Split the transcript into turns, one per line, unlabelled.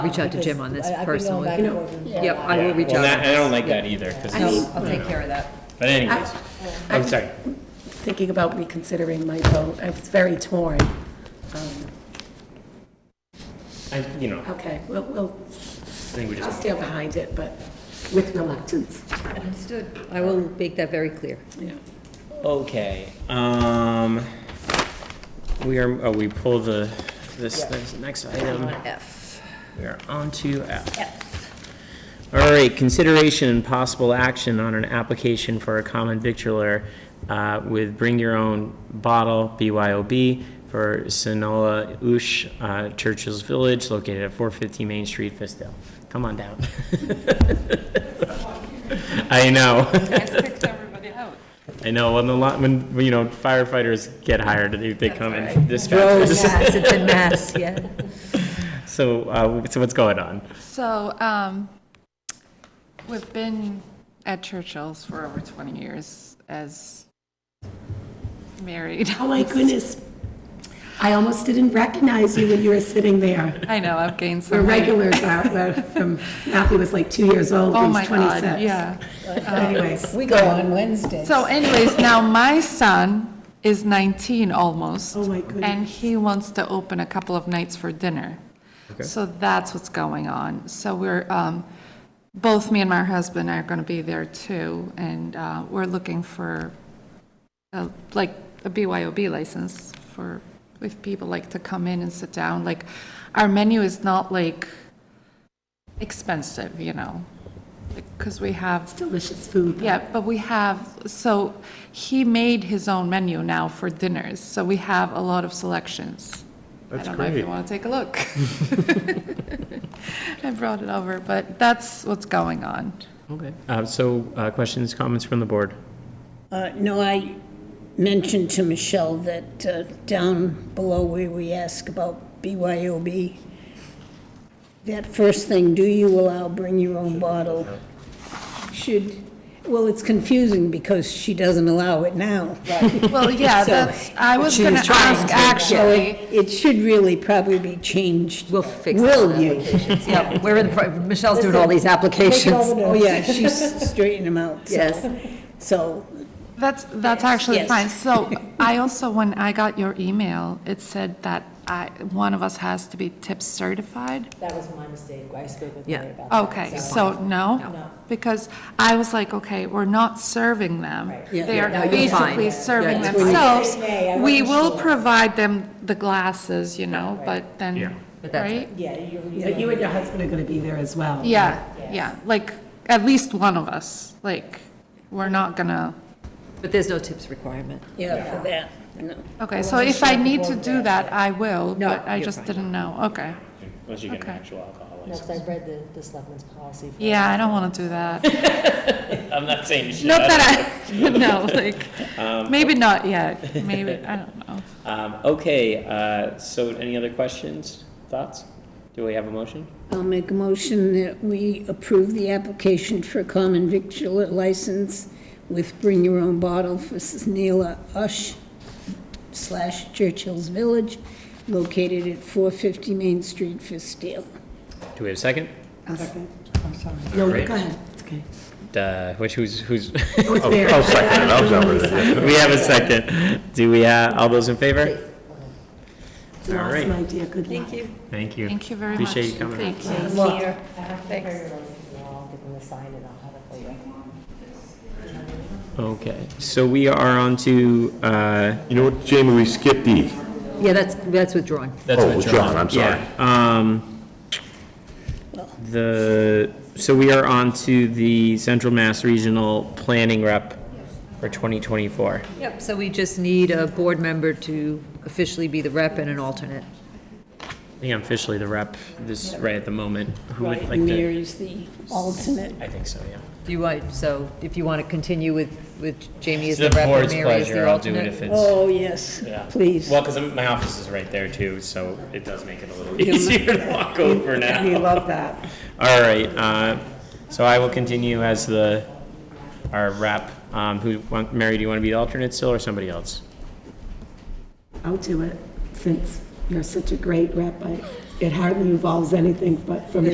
Reach out to Jim on this
Because I-
personally.
I've been going back and forth.
Yep, I will
Yeah,
reach
well,
out.
that- I don't like that either, 'cause
I mean,
it's-
I'll take care of that.
but anyways, I'm sorry.
thinking about reconsidering my vote, I was very torn. Um,
I, you know,
Okay, we'll, we'll,
I think we
I'll
just,
stand behind it, but with reluctance.
Understood. I will make that very clear.
Yeah.
okay, um, we are, oh, we pull the, this, this next item.
F.
We are on to F. All right, consideration and possible action on an application for a common victualler uh, with Bring Your Own Bottle, BYOB, for Sonola Ush uh, Churchill's Village, located at 450 Main Street, Fistale. Come on down. I know. I know, when the, lot- when, you know, firefighters get hired, they they come and dispatch.
Gross. It's a mess, yeah.
So, uh, so what's going on?
So, um, we've been at Churchill's for over 20 years as married.
Oh, my goodness. I almost didn't recognize you when you were sitting there.
I know, I've gained
The
some weight.
regulars out there from, Matthew was like two years old, he
Oh,
was
my
26.
God, yeah.
uh, Anyways,
We go on Wednesday.
So anyways, now my son is 19 almost.
Oh, my goodness.
And he wants to open a couple of nights for dinner. So that's what's going on. So we're, um, both me and my husband are going to be there too, and uh, we're looking for, a- like, a BYOB license for, if people like to come in and sit down. Like, our menu is not like expensive, you know, because we have
delicious food.
yeah, but we have, so he made his own menu now for dinners, so we have a lot of selections. I don't know if you want to take a look. I brought it over, but that's what's going on.
Okay, uh, so, uh, questions, comments from the board?
Uh, No, I mentioned to Michelle that uh, down below where we ask about BYOB, that first thing, do you allow bring your own bottle? Should, well, it's confusing because she doesn't allow it now.
Well, yeah, that's, I was going to ask,
So it-
actually,
It should really probably be changed.
We'll fix that.
Will you?
Yeah, we're in, the pro- Michelle's doing all these applications.
Oh, yeah, she's straightening them out. so-
Yes.
So,
that's, that's actually
yes.
fine. So I also, when I got your email, it said that I, one of us has to be tip certified.
That was my mistake. I spoke with
Yeah.
Mary about that.
Okay, so
uh, No.
no? Because I was like, okay, we're not serving them.
Yeah.
They are
No, you're
basically
fine.
serving
Yeah,
themselves.
May, I
We
wasn't
will
sure.
provide them the glasses, you know, but
Yeah.
then,
But that's
right?
Yeah, you're,
But you and your husband are going to be there as well.
Yeah, yeah, like, at least one of us, like, we're not gonna,
But there's no tips requirement.
yeah, for that. no.
okay, so if I need to do that, I will,
No,
but I
you're
just
fine.
didn't know, okay.
Unless you get an
Okay.
actual alcohol
no, 'cause
license.
I've read the, the selectmen's policy. for-
Yeah, I don't wanna do that.
I'm not saying you should.
Not that I, no, like, maybe not yet, maybe, I don't know.
Um, okay, uh, so any other questions, thoughts? Do we have a motion?
I'll make a motion that we approve the application for common victular license with bring your own bottle for Neela Ush slash Churchill's Village, located at 450 Main Street, Fistale.
Do we have a second?
No,
Great.
go ahead, it's okay.
Uh, which, who's, who's,
Oh, it's there.
I'll second it, I'll jump in there.
we have a second. Do we, uh, all those in favor?
It's an
All right.
awesome idea, good luck. Thank you.
Thank you.
Thank you very much.
Appreciate you coming.
Thank you.
I have to get Mary Rose's and I'll give them the sign and I'll have it for you.
Okay, so we are on to, uh,
You know what, Jamie, we skipped E.
Yeah, that's, that's withdrawn.
that's
Oh, John, I'm sorry.
Yeah, um, the, so we are on to the Central Mass Regional Planning Rep for 2024.
Yep, so we just need a board member to officially be the rep and an alternate.
I think I'm officially the rep this, right at the moment. Who would
Right,
like
and
to?
Mary's the alternate.
I think so, yeah.
Do you want, so if you want to continue with, with Jamie as
It's
the
the
rep and
board's
Mary as
pleasure,
the
I'll do it
alternate?
if it's,
Oh, yes,
yeah.
please.
Well, because my office is right there too, so it does make it a little easier to walk over
We
now.
love that.
All right, uh, so I will continue as the, our rep. Um, who, want- Mary, do you want to be the alternate still or somebody else?
I'll do it, since you're such a great rep, I it hardly involves anything but from